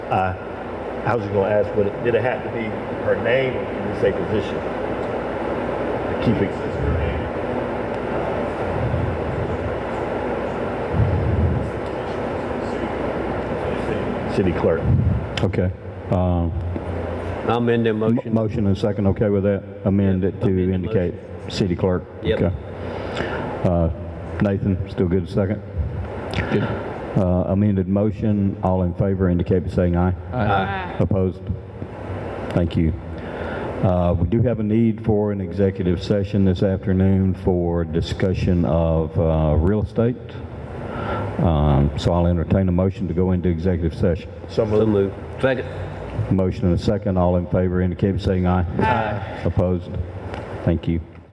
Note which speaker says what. Speaker 1: I, I was just gonna ask, but did it have to be her name or can you say position? To keep it. City clerk.
Speaker 2: Okay. Um,
Speaker 3: I'm in the
Speaker 2: m-
Speaker 3: motion.
Speaker 2: Motion and second, okay with that? Amend it
Speaker 3: amend
Speaker 2: to
Speaker 3: the
Speaker 2: indicate city clerk.
Speaker 3: Yep.
Speaker 2: Okay. Uh, Nathan, still good second? Good. Amended motion, all in favor indicate by saying aye. Aye. Opposed? Thank you. Uh, We do have a need for an executive session this afternoon for discussion of uh, real estate. Um, So I'll entertain a motion to go into executive session.
Speaker 1: So
Speaker 3: So
Speaker 1: moved.
Speaker 3: moved. Second.
Speaker 2: Motion and a second, all in favor indicate by saying aye. Aye. Opposed? Thank you.